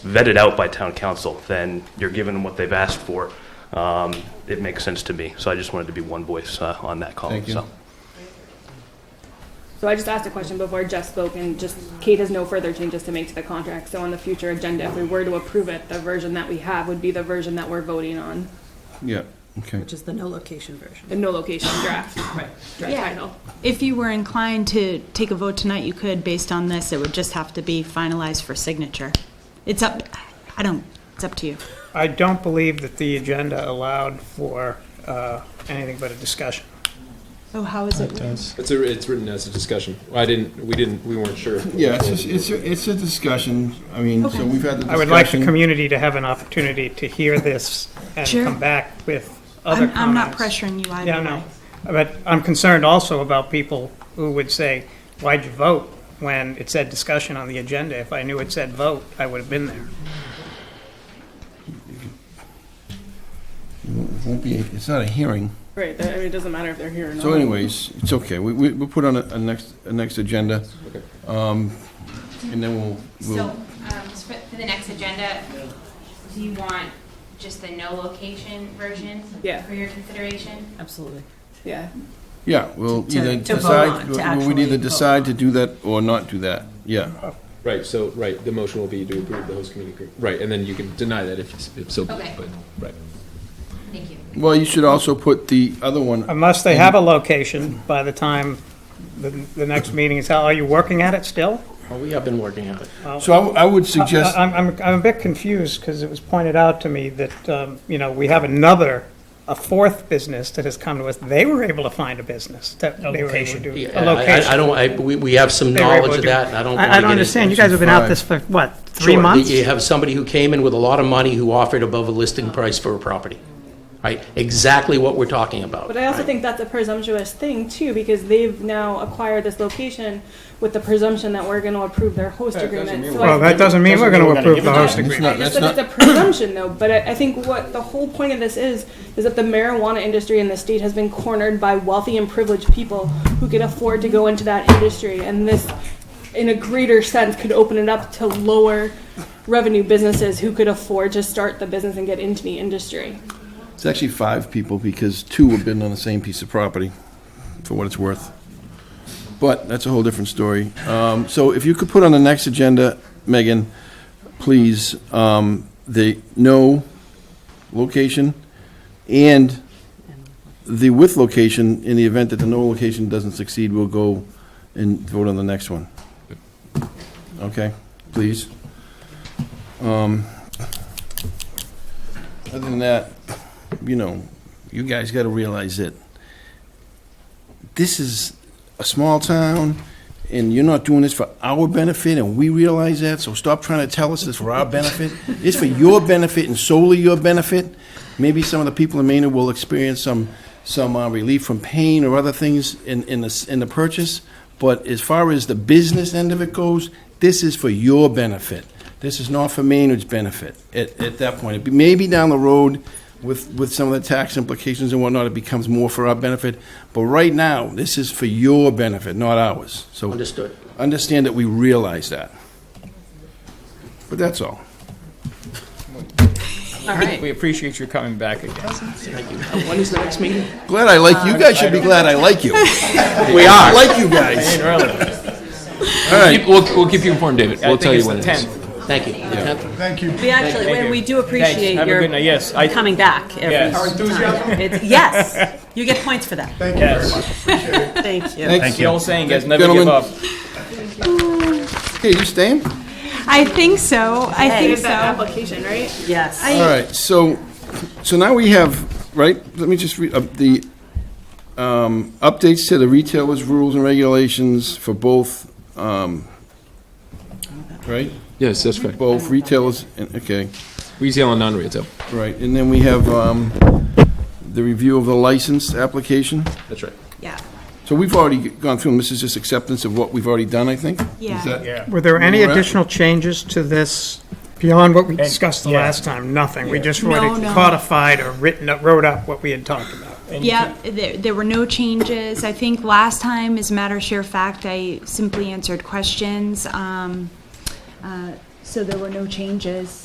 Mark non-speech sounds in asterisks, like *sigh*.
vetted out by town council, then you're giving them what they've asked for. Um, It makes sense to me, so I just wanted to be one voice uh, on that call. Thank you. so. So I just asked a question before Jeff spoke, and just Kate has no further changes to make to the contract. So on the future agenda, if we were to approve it, the version that we have would be the version that we're voting on, Yeah, okay. Which is the no location version. the no location draft. Right. Draft Yeah. title. If you were inclined to take a vote tonight, you could, based on this, it would just have to be finalized for signature. It's up, I don't, it's up to you. I don't believe that the agenda allowed for uh, anything but a discussion. Oh, how is it? It's, a, it's written as a discussion. I didn't, we didn't, we weren't sure. Yeah, it's, a- it's, a- it's a discussion, I mean, so we've had the discussion. I would like the community to have an opportunity to hear this and Sure. come back with other I'm, comments. I'm not pressuring you either Yeah, way. *laughs* no. But I'm concerned also about people who would say, why'd you vote when it said discussion on the agenda? If I knew it said vote, I would have been there. It Won't be, it's not a hearing. Right, that- I mean, it doesn't matter if they're here or not. So anyways, it's okay, we, we, we'll put on a, a next, a next agenda. Um, and then we'll, So, we'll, um, just for, for the next agenda, do you want just the no location version? Yeah. For your consideration? Absolutely. Yeah. yeah, we'll To- either to vote decide, on, to we would either actually decide vote to on. do that or not do that, yeah. Right, so, right, the motion will be to approve the host community agreement. Right, and then you can deny that if, if so. Okay. But, right. Thank you. Well, you should also put the other one, Unless they have a location by the time the, the next meeting is, held. are you working at it still? Well, we have been working on it. so I, w- I would suggest, I- Uh, I'm, I'm, I'm a bit confused because it was pointed out to me that, um, you know, we have another, a fourth business that has come to us. They were able to find a business that they were able to do. Yeah, I- I- A I location. don't, I, we, we have some They were able knowledge to of do- that, and I don't. wanna I, I get don't into- understand. You guys have been out five. this for, what, three Sure, months? You have somebody who came in with a lot of money who offered above a listing Oh. price for a property, right? Exactly what we're talking about. But I also right? think that's a presumptuous thing too, because they've now acquired this location with the presumption that we're going to approve their host That doesn't agreement. mean So we're- I Well, that think- doesn't mean we're Doesn't mean going we're gonna to give approve the it to host them. agreement. I just said it's a presumption though, but I, I think what the whole point of this is, is that the marijuana industry in the state has been cornered by wealthy and privileged people who can afford to go into that industry, and this, in a greater sense, could open it up to lower revenue businesses who could afford to start the business and get into the industry. it's actually five people, because two have been on the same piece of property, for what it's worth. But that's a whole different story. Um, so if you could put on the next agenda, Megan, please, um, the no location and the with location, in the event that the no location doesn't succeed, we'll go and vote on the next one. Okay, please. Um, Other than that, you know, you guys gotta realize that this is a small town, and you're not doing this for our benefit, and we realize that, so stop trying to tell us it's for our benefit. It's for your benefit and solely your benefit. Maybe some of the people in Maine will experience some, some uh, relief from pain or other things in, in the, s- in the purchase, but as far as the business end of it goes, this is for your benefit. This is not for Maynard's benefit at, at that point. Maybe down the road, with, with some of the tax implications and whatnot, it becomes more for our benefit. But right now, this is for your benefit, not ours. So Understood. understand that we realize that. But that's all. All right. We appreciate your coming back again. When is the next meeting? Glad I like Uh, you guys should be glad I like *laughs* you. We I are. like you guys. All right. We'll, we'll keep you informed, David. We'll tell you when it is. Thank you. The tenth? We actually, Thank we- you. we do appreciate Have a good night. your Yes, I- coming back every Yes. Our time. It's- *laughs* Yes, you get points for that. Yes. Thank you. Thanks. The old saying, guys, never Gentlemen. give up. Okay, you staying? I think so, I think That so. application, right? Yes. All right, so, so now we have, right, let me just read, up the, um, updates to the retailers' rules and regulations for both, um, right? Yes, that's right. Both retailers, and- okay, Retail and non-retail. right, and then we have, um, the review of the license application. That's right. Yeah, So we've already gone through, them. this is just acceptance of what we've already done, I think? Is Yeah. that- Were there any We're at- additional changes to this beyond what we discussed the last time? Nothing. We just No, already no. codified or written, up- wrote up what we had talked about. yeah, there, there were no changes. I think last time, as a matter of sheer fact, I simply answered questions. Um, uh, So there were no changes.